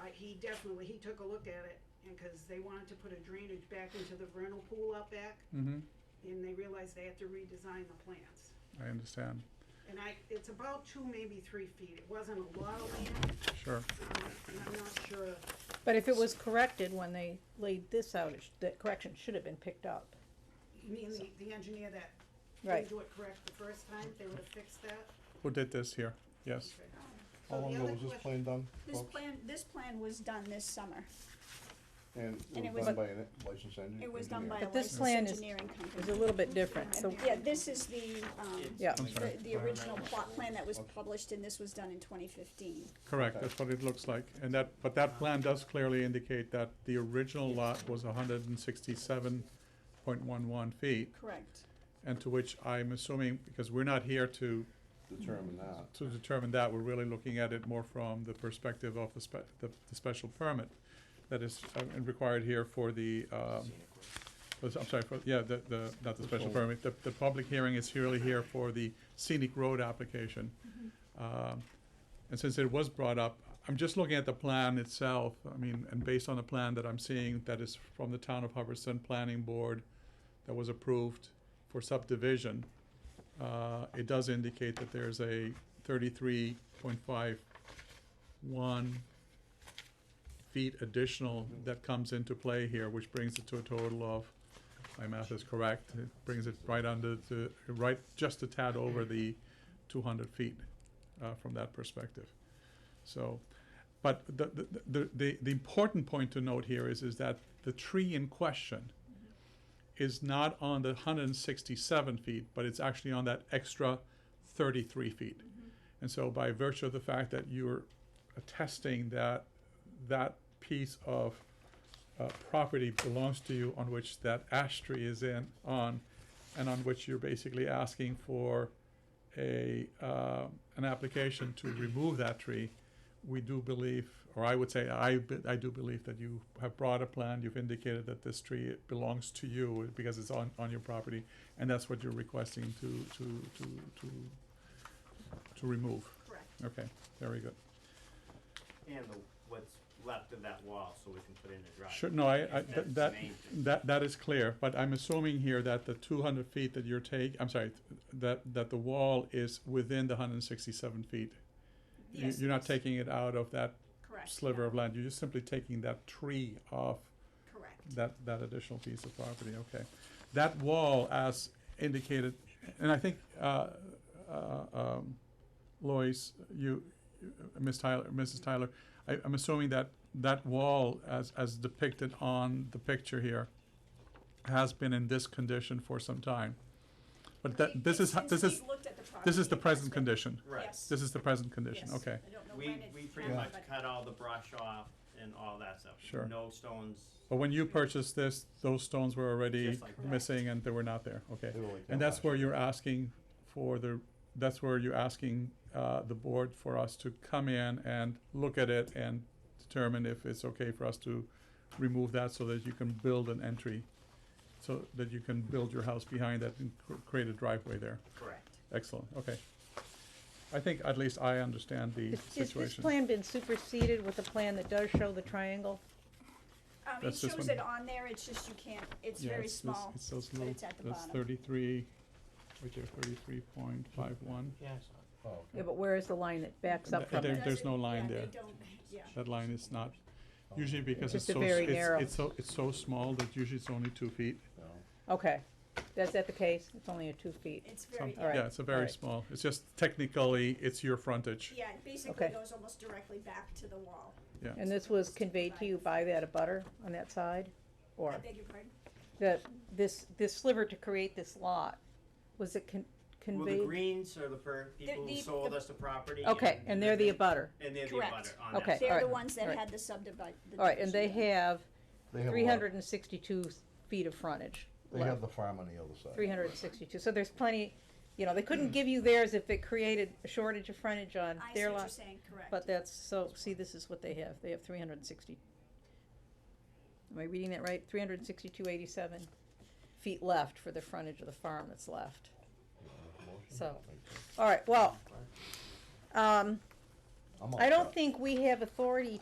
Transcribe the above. but he definitely, he took a look at it, and, cause they wanted to put a drainage back into the vernal pool out back, Mm-hmm, and they realized they had to redesign the plants. I understand, And I, it's about two, maybe three feet, it wasn't a lot of land, sure. um, and I'm not sure, But if it was corrected when they laid this out, it sh- the correction should have been picked up. you mean the, the engineer that Right. didn't do it correct the first time, they would've fixed that? Who did this here? Yes, Okay. So How the long ago other was this question- plan done, This folks? plan, this plan was done this summer. And and it it was was- done by a licensed engineer? It was done by a But this licensed plan is- engineering It's a company. little bit different, so, Yeah, this is the, um, yeah, I'm the, sorry. the original plot plan that was published and this was done in twenty fifteen. Correct, Okay. that's what it looks like. And that, but that plan does clearly indicate that the original lot was hundred and sixty-seven point one one feet, Correct. and to which I'm assuming, because we're not here to, Determined that. to determine that, we're really looking at it more from the perspective of the spe- the, the special permit that is uh, required here for the, um, was- I'm sorry, for, yeah, the, the, not the special whole- permit, the, the public hearing is really here for the scenic road application. Um, And since it was brought up, I'm just looking at the plan itself, I mean, and based on the plan that I'm seeing, that is from the town of Hubbardston Planning Board that was approved for subdivision, uh, it does indicate that there's a thirty-three point five one feet additional that comes into play here, which brings it to a total of, my math is correct, it brings it right under the, right, just a tad over the two hundred feet, uh, from that perspective. So, but the, the, the, the, the important point to note here is, is that the tree in question is not on the hundred and sixty-seven feet, but it's actually on that extra thirty-three feet. And so by virtue of the fact that you're attesting that that piece of uh, property belongs to you on which that ash tree is in, on, and on which you're basically asking for a, uh, an application to remove that tree, we do believe, or I would say, I, be- I do believe that you have brought a plan, you've indicated that this tree belongs to you because it's on, on your property, and that's what you're requesting to, to, to, to, to remove. Correct. Okay, very good. And the, what's left of that wall, so we can put in a driveway. Sure, no, I, I, That's th- the that, main thing. that, that is clear, but I'm assuming here that the two hundred feet that you're take, I'm sorry, th- that, that the wall is within the hundred and sixty-seven feet. You- Yes, You're not yes. taking it out of that Correct. sliver of land, you're just simply taking that tree off Correct. that, that additional piece of property, okay. That wall as indicated, and I think, uh, uh, um, Lois, you, you- Ms. Tyler, Mrs. Tyler, I, I'm assuming that that wall as, as depicted on the picture here has been in this condition for some time. But that, this is, ho- Since this is, we've looked at the property, this is the it has present been- condition. Right. Yes. This is the present condition, Yes. okay. I don't know We, when it we pretty much happened, but cut all the brush off and all that stuff. Sure. No stones. But Oh. when you purchased this, those stones were already Just like that. missing and they were not there, okay? They were like And that that's last where year. you're asking for the, that's where you're asking, uh, the board for us to come in and look at it and determine if it's okay for us to remove that so that you can build an entry, so that you can build your house behind that and cr- create a driveway there. Correct. Excellent, okay. I think at least I understand the is, is this situation. plan been superseded with a plan that does show the triangle? Um, it That's this shows one. it on there, it's just you can't, it's Yeah, very it's this- small, It's but those little, it's at the that's bottom. thirty-three, right there, thirty-three point five one. Oh, Yeah, but where is the line that backs up from There- it? Does there's it- no line yeah, they there. don't- Yeah, That line is not, usually because it's Just a so, very s- narrow. it's, it's so, it's so small that usually it's only two feet. Okay, is that the case? It's only a two feet. it's Some- very, All right. Yeah, it's a very alright. small, it's just technically, it's your frontage, yeah, it basically Okay. goes almost directly back to the wall. yeah. And this was conveyed to you by that abutter on that side? Or I beg your pardon? that, this, this sliver to create this lot, was it con- Well, the conveyed? greens are the per, people who the- sold the- us the property. Okay, and they're the they- abutter. And they're the Correct. abutter on that. Okay. side. They're the alright, ones that alright. had the subdivision. All right, and they have They have a three lot, hundred and sixty-two feet of frontage. they have the farm on the other side. Three hundred and sixty-two, so there's plenty, you know, they couldn't give you theirs if it created a shortage of frontage on I see their what you're lot. saying, But correct. that's, so, see, this is what they have, they have three hundred and sixty. Am I reading that right? Three hundred and sixty-two eighty-seven feet left for the frontage of the farm that's left. So, all right, well, um, I'm all I set. don't think we have authority